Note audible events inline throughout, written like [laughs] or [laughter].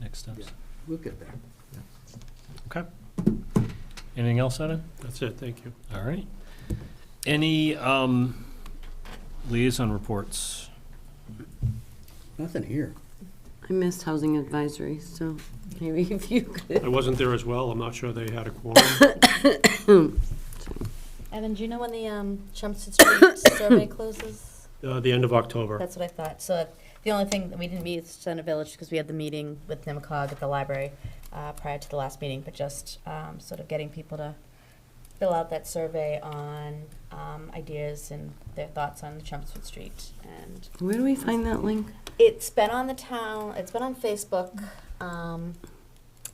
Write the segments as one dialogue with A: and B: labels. A: next steps.
B: We'll get there.
A: Anything else, Evan?
C: That's it, thank you.
A: All right. Any um, liaison reports?
B: Nothing here.
D: I missed housing advisory, so maybe [laughs] if you could.
C: I wasn't there as well, I'm not sure they had a
D: [coughs]
C: quorum.
E: Evan, do you know when the um, Chelmsford Street [coughs] survey closes?
C: Uh, The end of October.
E: That's what I thought. So uh, the only thing that we didn't meet is Center Village because we had the meeting with NIMCOG at the library uh, prior to the last meeting, but just um, sort of getting people to fill out that survey on um, ideas and their thoughts on Chelmsford Street. And
D: Where do we find that link?
E: it's been on the town, it's been on Facebook. Um,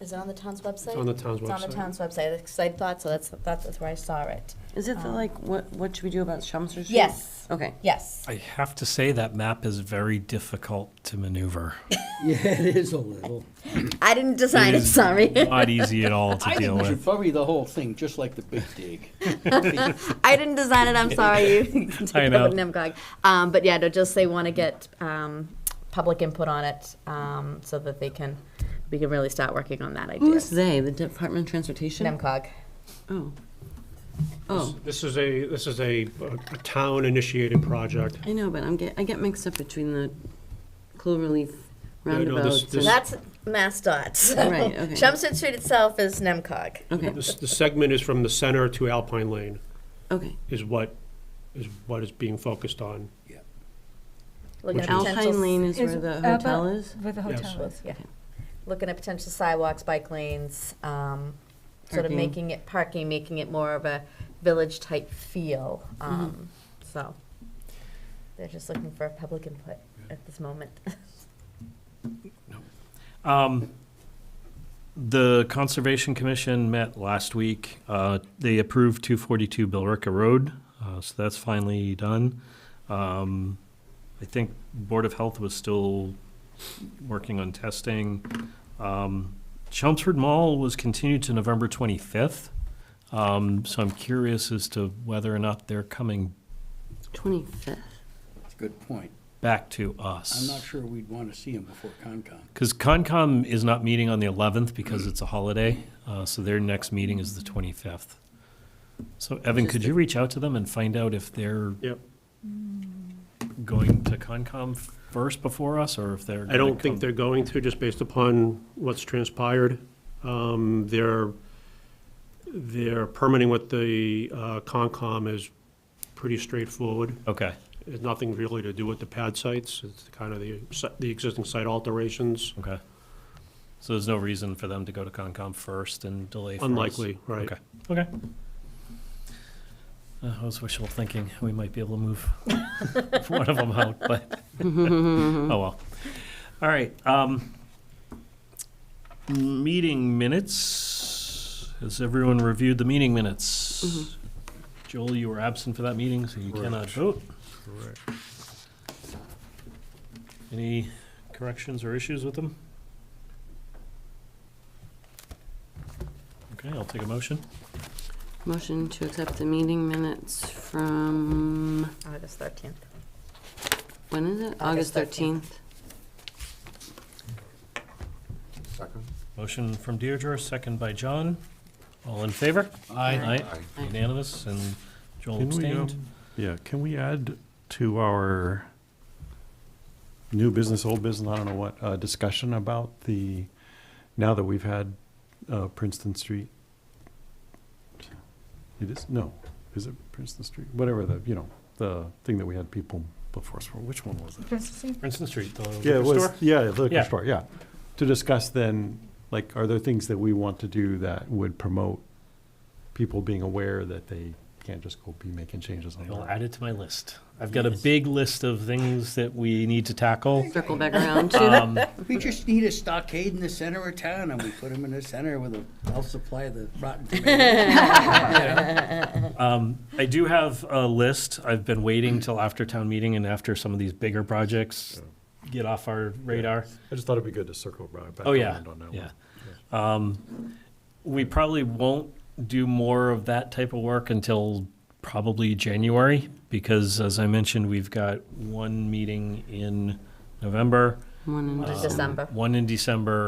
E: Is it on the town's website?
C: It's on the town's
E: It's on the
C: website.
E: town's website, because I thought so. That's, that's where I saw it.
D: Is it the,
E: Um,
D: like, what, what should we do about Chelmsford Street?
E: Yes,
D: Okay.
E: yes.
A: I have to say that map is very difficult to maneuver.
B: [laughs] Yeah, it is a little.
E: I didn't design
A: It
E: it,
A: is
E: sorry. [laughs]
A: Not easy at all to
B: I
A: deal
B: think we should
A: with.
B: probably the whole thing, just like the big dig.
E: I didn't
A: [laughs]
E: design it, I'm sorry. You can take
A: I
E: it up with
A: know.
E: NIMCOG. Um, but yeah, no, just they want to get, um, public input on it, um, so that they can, we can really start working on that idea.
D: Who's they? The Department of Transportation?
E: NIMCOG.
D: Oh. Oh,
C: This is a, this is a a town-initiated project.
D: I know, but I'm get, I get mixed up between the Cloverleaf
C: no, this-
D: roundabouts.
C: this-
D: and-
E: That's MassDOT.
D: Right, okay.
E: Chelmsford Street itself is NIMCOG.
D: Okay,
C: This, the segment is from the center to Alpine Lane,
D: okay.
C: is what, is what is being focused on.
E: Looking at potential-
D: Alpine Lane is where
F: Is
D: the
F: Abba-
D: hotel is?
F: With the
C: Yes.
F: hotel is.
E: Yeah. Looking at potential sidewalks, bike lanes, um, sort of
D: Parking.
E: making it, parking, making it more of a village-type feel, um, so. They're just looking for public input at this moment.
A: Um, The Conservation Commission met last week. Uh, They approved 242 Billerica Road, uh, so that's finally done. Um, I think Board of Health was still working on testing. Um, Chelmsford Mall was continued to November 25th, Um, so I'm curious as to whether or not they're coming
C: [laughs]
D: Twenty-fifth.
B: That's a good point.
A: back to
B: I'm
A: us.
B: not sure we'd want to see him before Concom.
A: Because Concom is not meeting on the 11th because it's a holiday, uh, so their next meeting is the 25th. So Evan, could you reach out to them and find out if they're
C: Yep.
A: going to Concom first before us, or if they're?
C: I
A: gonna
C: don't think
A: come-
C: they're going to, just based upon what's transpired. Um, Their, their permitting with the uh, Concom is pretty straightforward.
A: Okay,
C: It's nothing really to do with the pad sites, it's kind of the, si- the existing site alterations,
A: okay. So there's no reason for them to go to Concom first and delay for us?
C: unlikely, right?
A: Okay, okay. Uh, I was wishful thinking, we might be able to move [laughs] one of them out, but, oh well. All right, um, meeting minutes, has everyone reviewed the meeting minutes? Joel, you were absent for that meeting, so you cannot vote. Any corrections or issues with them? Okay, I'll take a motion.
D: Motion to accept the meeting minutes from,
E: August thirteenth.
D: when is it? August
E: August 13th.
D: thirteenth.
A: Motion from Deirdre, second by John. All in favor?
B: I
A: Aye. Unanimous, and Joel
G: Can we, um,
A: abstained.
G: Yeah, can we add to our new business, old business, I don't know what, uh, discussion about the, now that we've had, uh, Princeton Street? It is, no, is it Princeton Street? Whatever the, you know, the thing that we had people before us for, which one was it?
F: Princessy.
A: Princeton Street, the
G: Yeah,
A: liquor
G: it was,
A: store?
G: yeah, the
A: Yeah.
G: liquor store, yeah. To discuss then, like, are there things that we want to do that would promote people being aware that they can't just go be making changes on their
A: I'll
G: own?
A: add it to my list. I've got a big list of things that we need to tackle.
D: Circle back around to
C: [laughs]
A: Um,
B: We just need a stockade in the center of town, and we put him in the center with a, I'll supply the rotten tomatoes.
A: Um, I do have a list. I've been waiting till after town meeting and after some of these bigger projects get off our radar.
G: I just thought it'd be good to circle back. back
A: Oh, yeah,
G: around on that one.
A: yeah. Um, We probably won't do more of that type of work until probably January, because as I mentioned, we've got one meeting in November, Um,
D: one and
E: December.
A: one in December,